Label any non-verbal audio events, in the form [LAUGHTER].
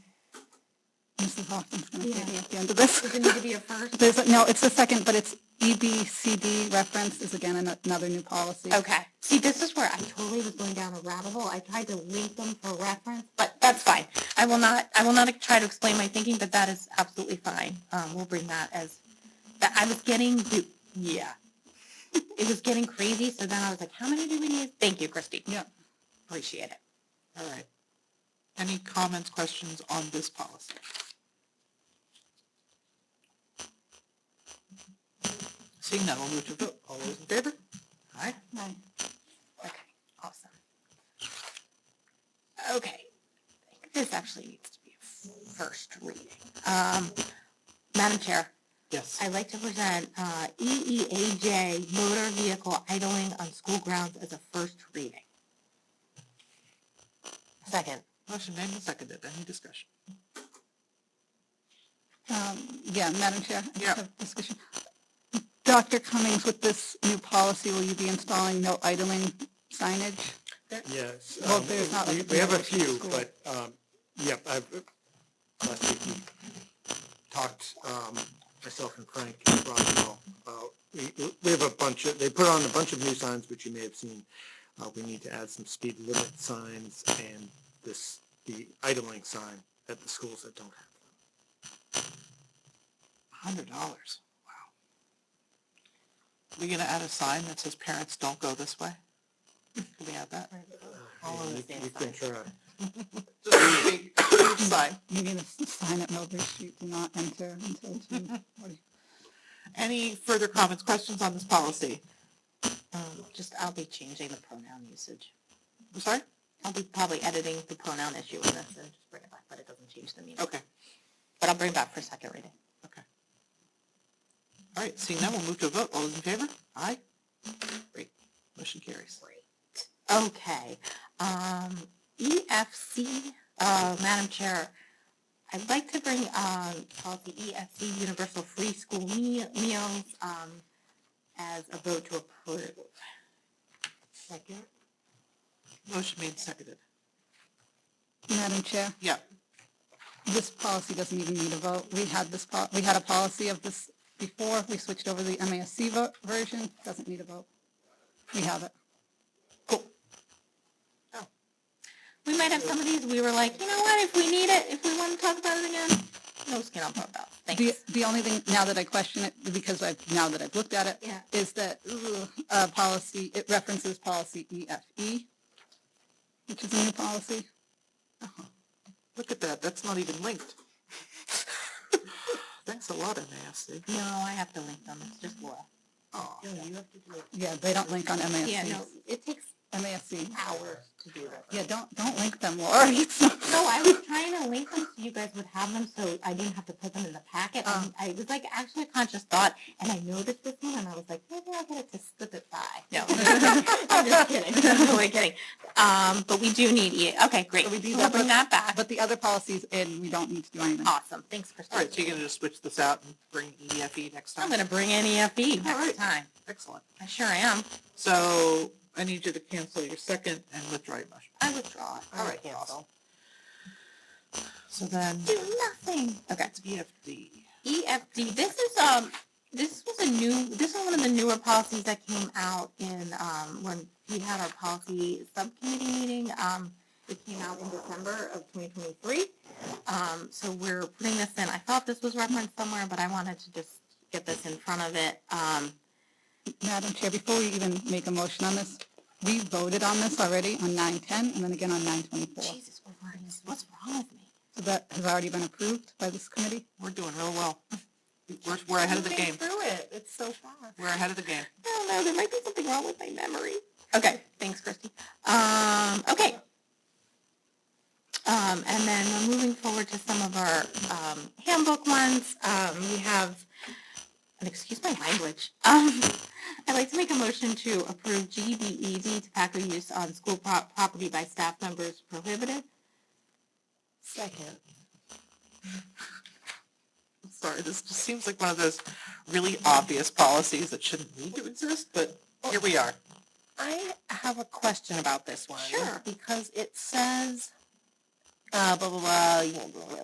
Mrs. Hoffman's going to Yeah. be at the end of this. Does it need to be a [LAUGHS] first? There's, no, it's the second, but it's E EBCD reference is again an- another new policy. Okay. See, this is where I totally was going down a rabbit hole. I tried to link them for reference, but that's fine. I will not, I will not try to explain my thinking, but that is absolutely fine. Um, we'll bring that as, that I was getting, the- yeah. It was getting crazy, so then I was like, how many do we need? Thank you, Christy. Yeah. Appreciate it. All right. Any comments, questions on this policy? Seeing none, we'll move to vote. All those in favor? Aye. Right. Okay, awesome. Okay, I think this actually needs to be a first reading. Um, Madam Chair, Yes. I'd like to present uh, EEAJ motor vehicle idling on school grounds as a first reading. Second. Motion made and seconded. Any discussion? Um, Yeah, Madam Chair. I just Yeah. have Discussion. Dr. Cummings, with this new policy, will you be installing no idling signage? Yes. Well, um, there's not like we- a We have a universal few, school. but, um, yep, I've, uh, last week we talked, um, myself and Frank and Roswell about, we, we have a bunch of, they put on a bunch of new signs, which you may have seen. Uh, we need to add some speed limit signs and this, the idling sign at the schools that don't have. Hundred dollars. Wow. We gonna add a sign that says parents don't go this way? Can we add that? All them. of You the you can try. Just a big, huge sign. You need a s- sign at Millbridge Street, do not enter until 2:40. Any further comments, questions on this policy? Um, just, I'll be changing the pronoun usage. I'm sorry? I'll be probably editing the pronoun issue in this and just bring it back, but it doesn't change the meaning. Okay. But I'll bring it back for a second reading. All right, seeing none, we'll move to a vote. All those in favor? Aye. Great. Motion carries. Okay, um, EFC, uh, Madam Chair, I'd like to bring, um, policy EFC, Universal Free School Me- Meals, um, as a vote to approve. Second? Motion made, and seconded. Madam Chair, Yeah, this policy doesn't even need a vote. We had this, po- we had a policy of this before. We switched over to the MASC vo- version. Doesn't need a vote. We have it. cool. We might have some of these, we were like, you know what, if we need it, if we wanna talk about it again, no skin off our belt, The, thanks. the only thing, now that I question it, because I've, now that I've looked at it, Yeah. is that, ugh, uh, policy, it references policy EFE, which is a new policy. Look at that, that's not even linked. [LAUGHS] Thanks a lot, MASC. No, I have to link them, it's just law. Aw. you have to do it. Yeah, they don't link on MASC. Yeah, no, it takes MASC. hours to do that. Yeah, don't, don't link them, Laura. [LAUGHS] It's not- No, I was trying to link them so you guys would have them, so I didn't have to put them in the packet. Oh. Um, I was like actually a conscious thought, and I noticed this one, and I was like, maybe I'll get it to slip it by. No, [LAUGHS] I'm just kidding. [LAUGHS] I'm totally kidding. Um, but we do need E. Okay, great. So we do will that, bring that back. But the other policies in, we don't need to do anything. awesome. Thanks, All right, so Christine. you're gonna just switch this out and bring EFE next I'm time? gonna bring in EFB All next right. time. Excellent. I sure am. So I need you to cancel your second and withdraw your motion. I withdraw. it. All right, awesome. So then, Do nothing. Okay. that's EFD. EFD, E this is, um, this was a new, this is one of the newer policies that came out in, um, when we had our policy subcommittee meeting, um, it came out in December of twenty twenty-three. Um, so we're putting this in, I thought this was referenced somewhere, but I wanted to just get this in front of it, um, Madam Chair, before we even make a motion on this, we voted on this already on nine ten and then again on nine twenty-four. Jesus, we're running this- what's wrong with me? So that has already been approved by this committee. We're doing real well. We're, we're ahead of the Moving game. Through it, it's so fast. We're ahead of the game. I don't know, there might be something wrong with my memory. Okay, thanks, Christy. Um, okay. Um, and then we're moving forward to some of our, um, handbook ones. Um, we have, and excuse my language, um, I'd like to make a motion to approve GBED tobacco use on school pro- property by staff members prohibited. Second. Sorry, this just seems like one of those really obvious policies that shouldn't need to exist, but here we are. I have a question about this one. Sure. Because it says, uh, blah, blah, blah, you know, blah, blah,